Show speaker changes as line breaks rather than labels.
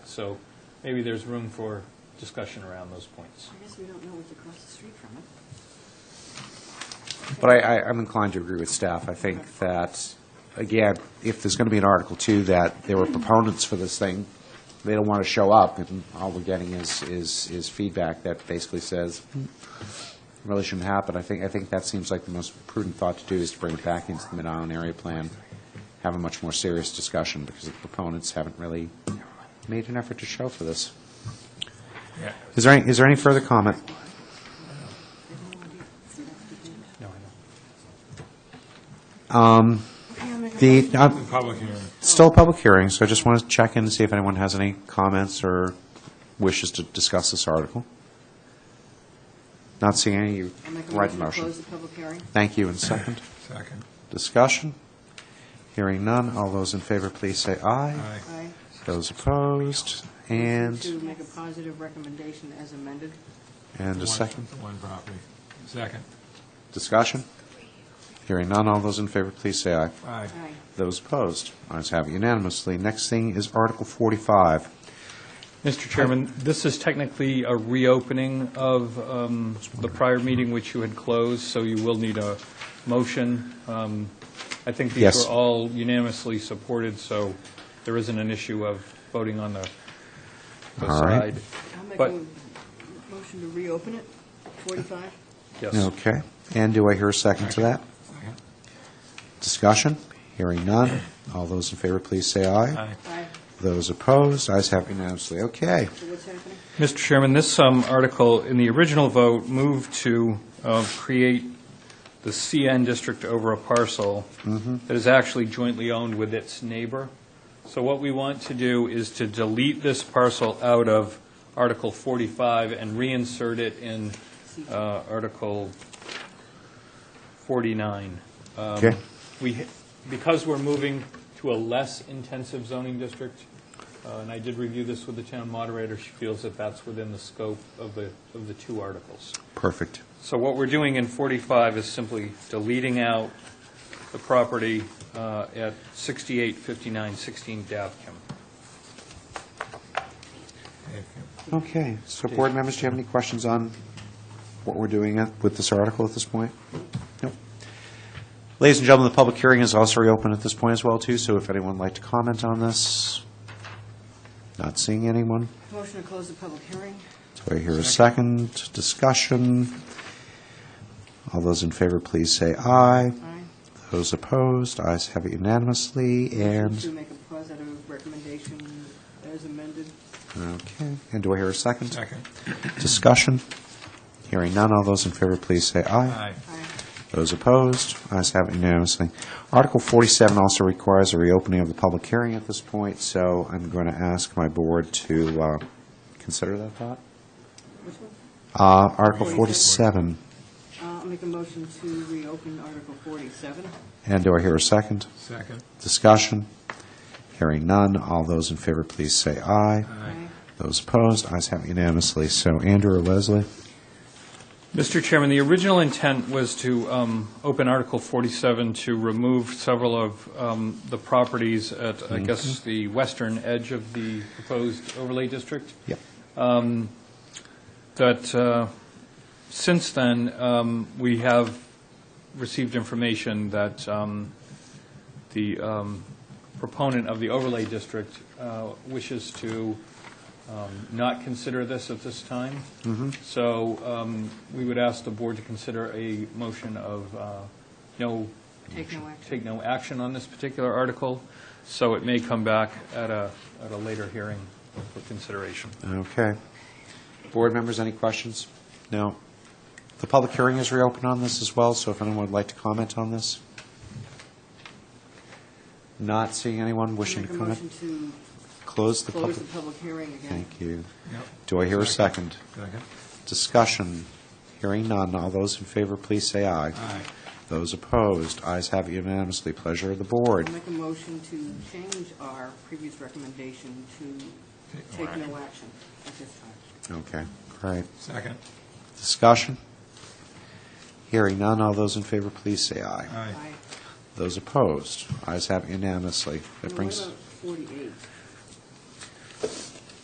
So maybe there's room for discussion around those points.
I guess we don't know what's across the street from it.
But I, I- I'm inclined to agree with staff. I think that, again, if there's going to be an Article 2, that there were proponents for this thing, they don't want to show up, and all we're getting is, is, is feedback that basically says, "Hmm, really shouldn't happen. I think, I think that seems like the most prudent thought to do is to bring it back into the Mid-Island Area Plan, have a much more serious discussion, because the proponents haven't really made an effort to show for this. Is there, any- is there any further comment? The, uh,
Public hearing.
Still a public hearing, so I just want to check in and see if anyone has any comments or wishes to discuss this article. Not seeing any, you
I'll make a
right
motion to
motion.
close the public hearing.
Thank you, and second.
Second.
Discussion? Hearing none, all those in favor, please say aye.
Aye.
Aye.
Those opposed,
To
and,
make a positive recommendation as amended.
and a
One-
second.
One property. Second.
Discussion? Hearing none, all those in favor, please say aye.
Aye.
Aye.
Those opposed, ayes have it unanimously. Next thing is Article 45.
Mr. Chairman, this is technically a reopening of um, the prior meeting which you had closed, so you will need a motion. Um, I think these
Yes.
were all unanimously supported, so there isn't an issue of voting on the the
All right.
side.
I'll make
But-
a motion to reopen it, 45.
Yes.
Okay, and do I hear a second to that?
Second.
Discussion? Hearing none. All those in favor, please say aye.
Aye.
Aye.
Those opposed, ayes have unanimously. Okay.
So what's happening?
Mr. Chairman, this um, article, in the original vote, moved to uh, create the CN district over a parcel that is actually jointly owned with its neighbor. So what we want to do is to delete this parcel out of Article 45 and reinsert it in uh, Article 49. Um,
Okay.
We, ha- because we're moving to a less intensive zoning district, uh, and I did review this with the town moderator, she feels that that's within the scope of the, of the two articles.
Perfect.
So what we're doing in 45 is simply deleting out the property uh, at 6859 16 Davkim.
Thank you.
Okay. So board members, do you have any questions on what we're doing at- with this article at this point? Nope. Ladies and gentlemen, the public hearing is also reopened at this point as well, too, so if anyone would like to comment on this, not seeing anyone.
Motion to close the public hearing.
Do I hear a second? Discussion? All those in favor, please say aye.
Aye.
Those opposed, ayes have it unanimously,
To
and,
make a positive recommendation as amended.
okay, and do I hear a second?
Second.
Discussion? Hearing none, all those in favor, please say aye.
Aye.
Aye.
Those opposed, ayes have it unanimously. Article 47 also requires a reopening of the public hearing at this point, so I'm going to ask my board to uh, consider that thought.
Which one?
Uh, Article
47.
47,
Uh, I'll make a motion to reopen Article 47.
and do I hear a second?
Second.
Discussion? Hearing none, all those in favor, please say aye.
Aye.
Those opposed, ayes have it unanimously. So Andrew or Leslie?
Mr. Chairman, the original intent was to um, open Article 47 to remove several of um, the properties at, I guess, the western edge of the proposed overlay district. Um,
Yep.
that uh, since then, um, we have received information that um, the um, proponent of the overlay district uh, wishes to um, not consider this at this time. So um, we would ask the board to consider a motion of uh, no,
Take no action.
take no action on this particular article, so it may come back at a, at a later hearing for consideration.
Okay. Board members, any questions? No. The public hearing is reopened on this as well, so if anyone would like to comment on this? Not seeing anyone wishing to
Make a motion
comment?
to
Close the
close
public.
the public hearing again.
Thank you.
Yep.
Do I hear a second?
Second.
Discussion. Hearing none. All those in favor, please say aye.
Aye.
Those opposed, ayes have it unanimously. Pleasure of the board.
I'll make a motion to change our previous recommendation to
Take no
take no action at this time.
Okay, great.
Second.
Discussion? Hearing none, all those in favor, please say aye.
Aye.
Aye.
Those opposed, ayes have unanimously. That
Now,
brings,
What about 48?